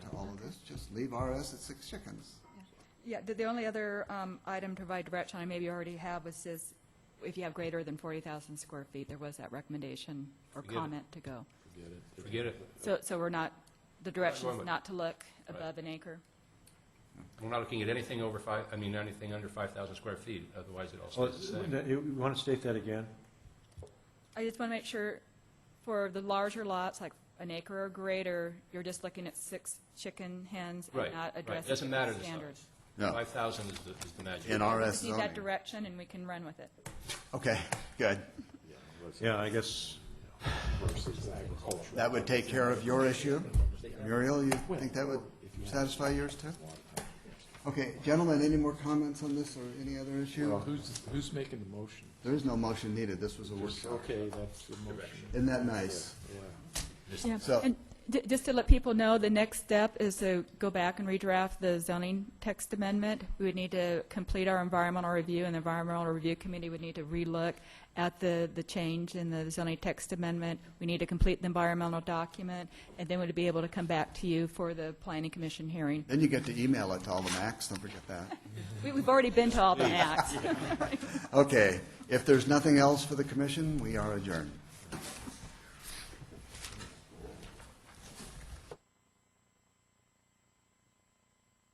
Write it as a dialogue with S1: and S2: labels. S1: leave RS at six chickens.
S2: Yeah, the, the only other um, item to provide direction, I maybe already have, was this, if you have greater than 40,000 square feet, there was that recommendation or
S3: Forget it.
S2: comment to go.
S3: Forget it.
S2: So, so we're not, the direction
S3: Right.
S2: is not to look above an acre?
S3: We're not looking at anything over five, I mean, anything under 5,000 square feet, otherwise it all
S4: Well,
S3: stays the same.
S4: you- You want to state that again?
S2: I just want to make sure, for the larger lots, like an acre or greater, you're just looking at six chicken hens
S3: Right,
S2: and not
S3: right.
S2: addressing
S3: Doesn't matter
S2: the
S3: the size.
S2: standards.
S1: No,
S3: 5,000 is the, is the magic.
S1: in RS
S2: Just need that
S1: zoning.
S2: direction, and we can run with it.
S1: Okay, good.
S4: Yeah, I guess,
S1: That would take care of your issue. Muriel, you think that would satisfy yours too? Okay, gentlemen, any more comments on this or any other issue?
S5: Who's, who's making the motion?
S1: There is no motion needed. This was a workshop.
S5: Okay, that's the motion.
S1: Isn't that nice?
S2: Yeah,
S1: So-
S2: and j- just to let people know, the next step is to go back and redraft the zoning text amendment. We would need to complete our environmental review, and the environmental review committee would need to relook at the, the change in the zoning text amendment. We need to complete the environmental document, and then we'd be able to come back to you for the planning commission hearing.
S1: Then you get to email it to all the Macs, don't forget that.
S2: We, we've already been to all the acts.
S1: Okay, if there's nothing else for the commission, we are adjourned.